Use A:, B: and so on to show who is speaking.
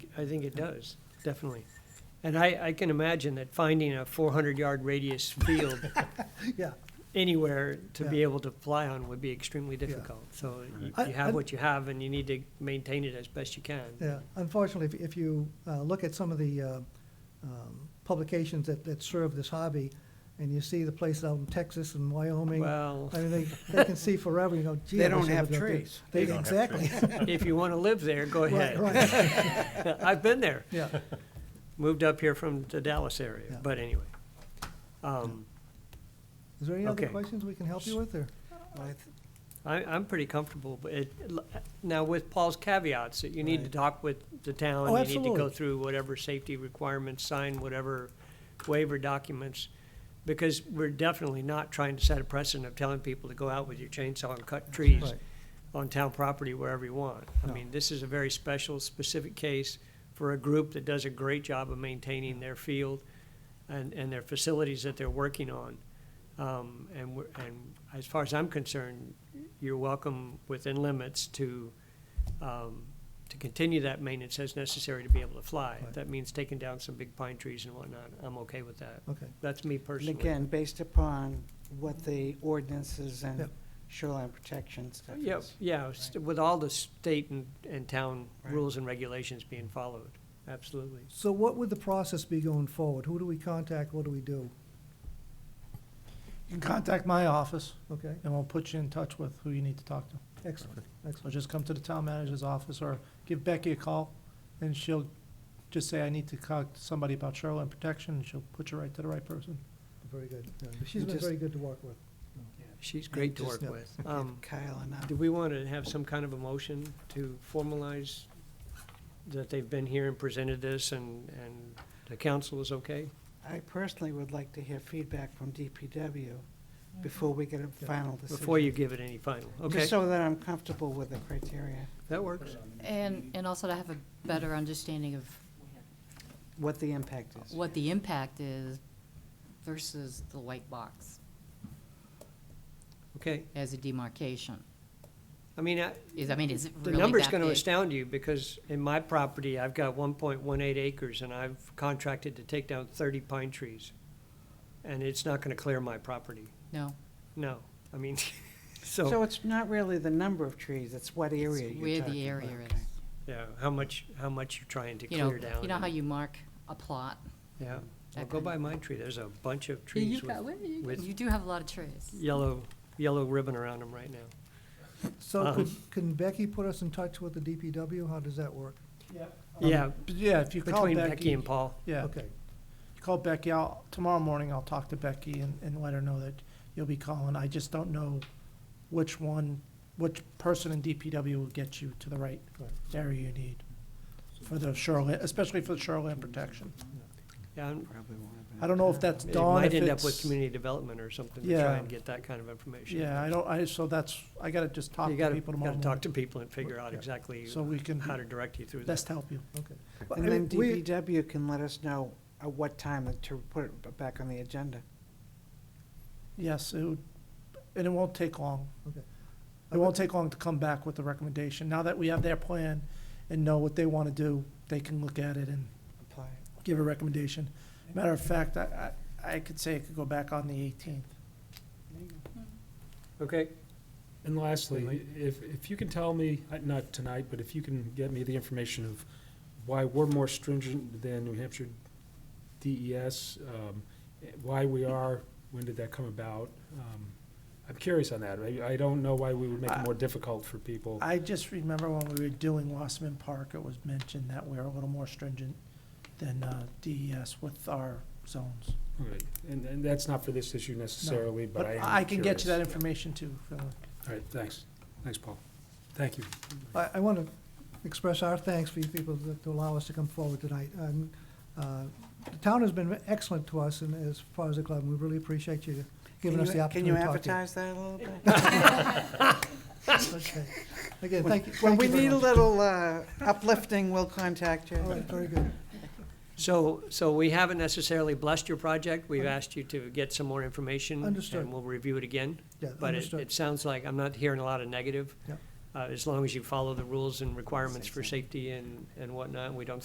A: I think it does, definitely. And I, I can imagine that finding a four hundred yard radius field
B: Yeah,
A: anywhere to be
B: Yeah.
A: able to fly on would be extremely difficult. So you-
B: I-
A: you have
B: I'm-
A: what you have and you need to maintain it as best you can.
B: yeah. Unfortunately, if- if you uh, look at some of the uh, um, publications that, that serve this hobby, and you see the places out in Texas and Wyoming, I
A: Well,
B: mean, they, they can see forever, you go, gee. I
C: They
B: wish
C: don't
B: I
C: have
B: lived out there."
C: trees.
B: They,
D: They don't have
B: exactly.
A: if you want to live there, go
B: Right,
A: ahead.
B: right,
A: I've been there.
B: yeah.
A: Moved up here from the Dallas area,
B: Yeah.
A: but anyway. Um,
B: Is there any other
A: Okay.
B: questions we can help you with, or?
C: I th-
A: I, I'm pretty comfortable, but it, now with Paul's caveats, that you need to
B: Right.
A: talk with the town.
B: Oh,
A: You need to go
B: absolutely.
A: through whatever safety requirements, sign whatever waiver documents, because we're definitely not trying to set a precedent of telling people to go out with your chainsaw and cut trees
B: Right.
A: on town property wherever you want. I
B: No.
A: mean, this is a very special, specific case for a group that does a great job of maintaining their field and, and their facilities that they're working on. Um, and we're, and as far as I'm concerned, you're welcome within limits to, um, to continue that maintenance as necessary to be able to fly. If
B: Right.
A: that means taking down some big pine trees and whatnot, I'm okay with that.
B: Okay,
A: That's me
C: And
A: personally.
C: again, based upon what the ordinances and
B: Yep.
C: shoreline protection stuff is.
A: Yep, yeah, s- with all the state and, and town
C: Right.
A: rules and regulations being followed, absolutely.
B: so what would the process be going forward? Who do we contact, what do we do?
E: You can contact my office,
B: Okay,
E: and we'll put you in touch with who you need to talk to.
B: excellent,
E: So
B: excellent,
E: just come to the town manager's office, or give Becky a call, and she'll just say, I need to talk to somebody about shoreline protection, and she'll put you right to the right person.
B: very good. Yeah, She's been
C: just-
B: very good to work with.
A: She's great to work
C: just-
B: yeah.
A: with. Um,
C: Kyle and I.
A: do we want to have some kind of a motion to formalize that they've been here and presented this and, and the council is okay?
C: I personally would like to hear feedback from DPW before we get a final decision.
A: Before you give it any final, okay,
C: Just so that I'm comfortable with the criteria,
A: that works.
F: And, and also to have a better understanding of
C: what the impact is.
F: what the impact is versus the white box
A: Okay,
F: as a demarcation.
A: I mean, I,
F: Is, I mean, is it
A: The
F: really
A: number's
F: that
A: gonna
F: big?
A: astound you, because in my property, I've got one point one eight acres, and I've contracted to take down thirty pine trees. And it's not gonna clear my property,
F: No.
A: no, I mean,
C: So
A: so,
C: it's not really the number of trees, it's what area
F: it's
C: you're talking
F: Where
C: about.
F: the area
C: Okay.
F: is.
A: yeah, how much, how much you're trying to
F: You know,
A: clear down.
F: you know how
A: and-
F: you mark a plot?
A: Yeah, well,
F: that
A: go
F: kind
A: by
F: of-
A: my tree, there's a bunch of
F: You- you
A: trees
F: got-
A: with
F: well, you-
A: with-
F: You do have a lot of trees.
A: yellow, yellow ribbon around them right now.
B: So
C: Uh-huh.
A: Um,
B: could, can Becky put us in touch with the DPW? How does that work?
A: Yeah,
E: Um, Yeah, if you call E-
A: between Becky
E: Becky,
A: and Paul,
E: yeah,
B: Okay,
E: call Becky, I'll, tomorrow morning, I'll talk to Becky and, and let her know that you'll be calling. I just don't know which one, which person in DPW will get you to the right
B: Right.
E: area you need for the shoreline, especially for the shoreline protection.
A: yeah, I'm-
C: Probably won't have
E: I don't know if that's
A: it
E: Dawn,
A: might
E: if
A: end up with
E: it's,
A: community development or something to try
E: Yeah.
A: and get that kind of information.
E: yeah, I don't, I, so that's, I gotta just talk
A: You
E: to
A: gotta,
E: people
A: gotta
E: tomorrow
A: talk
E: morning,
A: to people and figure out
E: Yeah.
A: exactly
E: so we can
A: how to direct you through that.
E: best help you.
B: okay.
C: it.
B: But, I
C: And then
B: mean, we-
C: DPW can let us know at what time to put it back on the agenda.
E: Yes, it would, and it won't take long.
B: Okay.
E: It won't take long to come back with the recommendation. Now that we have their plan and know what they want to do, they can look at it and
C: Apply.
E: give a recommendation. Matter of fact, I, I, I could say it could go back on the eighteenth.
A: Okay,
G: And lastly, if, if you can tell me, uh, not tonight, but if you can get me the information of why we're more stringent than New Hampshire DES, um, eh, why we are, when did that come about? Um, I'm curious on that. I, I don't know why we would make it more difficult for people.
E: I just remember when we were doing Wasserman Park, it was mentioned that we're a little more stringent than, uh, DES with our zones.
G: Right. And, and that's not for this issue necessarily, but I am
E: But I can get
G: curious.
E: you that information too, Phil.
G: All right, thanks. Thanks, Paul. Thank you.
B: I, I want to express our thanks for you people that- to allow us to come forward tonight. And, uh, The town has been excellent to us and as far as the club, and we really appreciate you giving
C: Can
B: us
C: you-
B: the opportunity to talk to you.
C: Can you advertise that a little bit?
B: Okay. Again, thank you.
C: When
B: thank
C: we
B: you very
C: need a
B: much.
C: little uh, uplifting, we'll contact you.
B: All right, very good.
A: so, so we haven't necessarily blessed your project. We've asked you to get some more information.
B: Understood.
A: And we'll review it again.
B: Yeah,
A: But it,
B: understood.
A: it sounds like, I'm not hearing a lot of negative.
B: Yep.
A: Uh, as long as you follow the rules and requirements for
C: Safety.
A: safety and, and whatnot, we don't